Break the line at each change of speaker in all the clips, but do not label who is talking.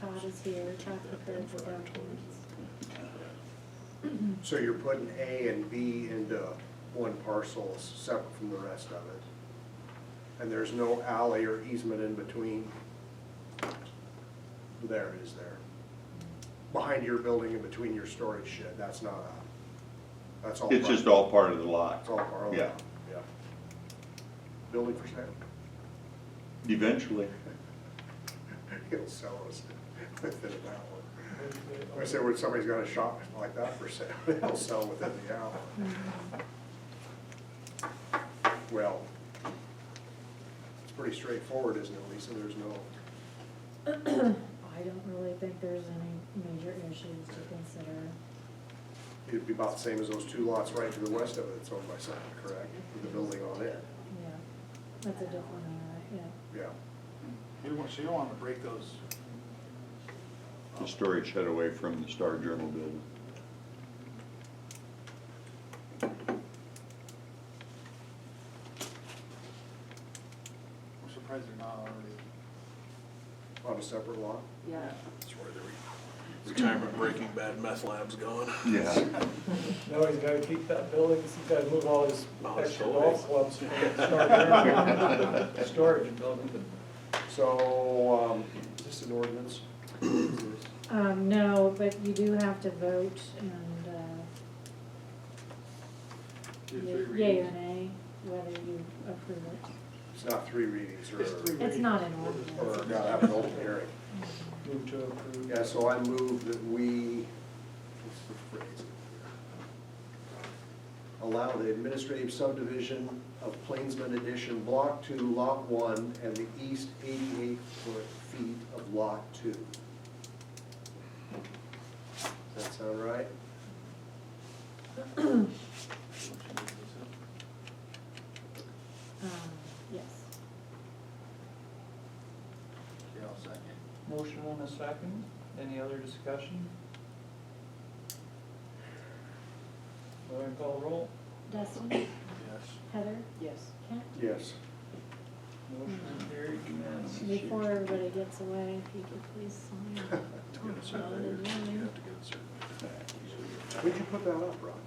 Todd is here, Todd prepared the documents.
So you're putting A and B into one parcel, separate from the rest of it? And there's no alley or easement in between? There is there. Behind your building and between your storage shed, that's not a, that's all.
It's just
private.
all part of the
It's
lot.
all part of
Yeah.
that, yeah. Building for sale,
Eventually,
it'll sell us within an hour. I said, when somebody's got a shop like that for sale, it'll sell within the hour. Well, it's pretty straightforward, isn't it, Lisa? There's no,
I don't really think there's any major issues to consider.
it'd be about the same as those two lots right to the west of it, it's owned by Sutton, correct? With the building on it,
Yeah, that's a different area, yeah.
yeah.
You want, so you don't want to break those.
the storage shed away from the Star Journal building.
I'm surprised they're not already.
On a separate lot?
Yeah.
That's where the re- retirement Breaking Bad meth lab's going.
Yeah.
No, he's gotta keep that building, he's gotta move all his
Oh, it's
extra
so
golf
big.
clubs from the storage area to the storage building.
So, um, is this an ordinance?
Um, no, but you do have to vote and, uh,
three
yea or
readings.
nay, whether you approve it.
It's not three readings or,
It's three
It's
readings.
not an
or
ordinance.
gotta have an open hearing.
Move to approve.
Yeah, so I move that we allow the administrative subdivision of Plainsman Edition Block Two, Lot One, and the east eighty-eight foot feet of Lot Two. Does that sound right?
Um, yes.
Yeah, I'll second.
Motion on a second, any other discussion? Go ahead and call roll.
Dustin,
Yes.
Heather,
Yes.
Kent,
Yes.
Motion carried unanimously.
before everybody gets away, if you could please sign.
To get a survey,
Oh,
you
yeah.
have to get a survey back.
Would you put that up, Ron?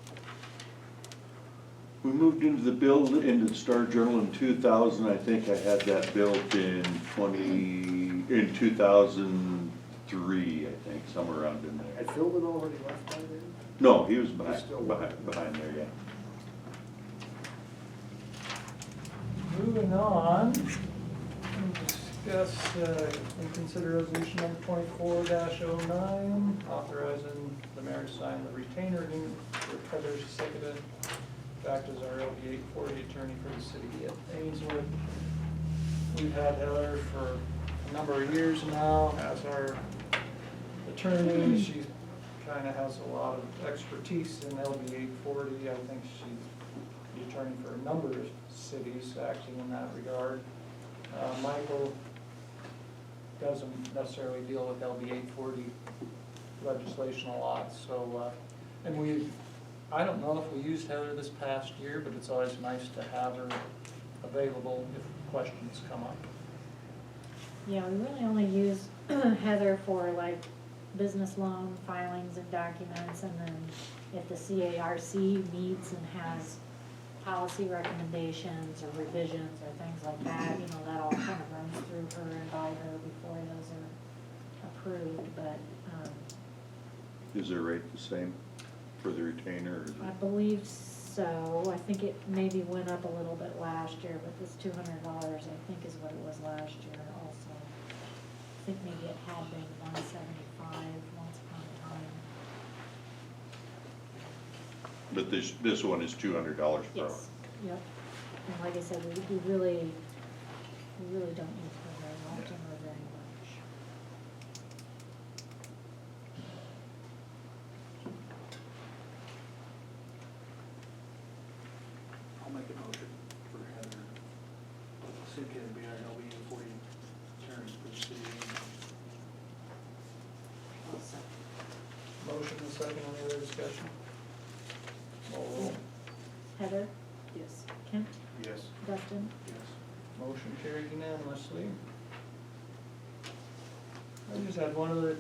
We moved into the build, into the Star Journal in two thousand, I think I had that built in twenty, in two thousand three, I think, somewhere around in there.
Had Philbin already left by then?
No, he was behind,
He's still
behind, behind there, yeah.
Moving on, we'll discuss uh, and consider resolution number twenty-four 9 authorizing the mayor to sign the retainer agreement for Heather Sekida, act as our LB eight forty attorney for the city of Ainsworth. We've had Heather for a number of years now as our attorney. She kind of has a lot of expertise in LB eight forty. I think she's the attorney for a number of cities acting in that regard. Uh, Michael doesn't necessarily deal with LB eight forty legislation a lot, so, uh, and we, I don't know if we used Heather this past year, but it's always nice to have her available if questions come up.
Yeah, we really only use Heather for like business loan filings and documents, and then if the CARC meets and has policy recommendations or revisions or things like that, you know, that all kind of runs through her and by her before those are approved, but, um,
Is their rate the same for the retainer or is it-
I believe so, I think it maybe went up a little bit last year, but this two hundred dollars, I think, is what it was last year also. I think maybe it had been one seventy-five once upon a time.
But this, this one is two hundred dollars per hour.
Yes, yep, and like I said, we, we really, we really don't use her very often or very much.
I'll make a motion for Heather. See if can be our LB forty attorney for the city.
I'll second.
Motion and second, any other discussion? Call roll.
Heather,
Yes.
Kent,
Yes.
Dustin,
Yes.
Motion carried unanimously. I just had one other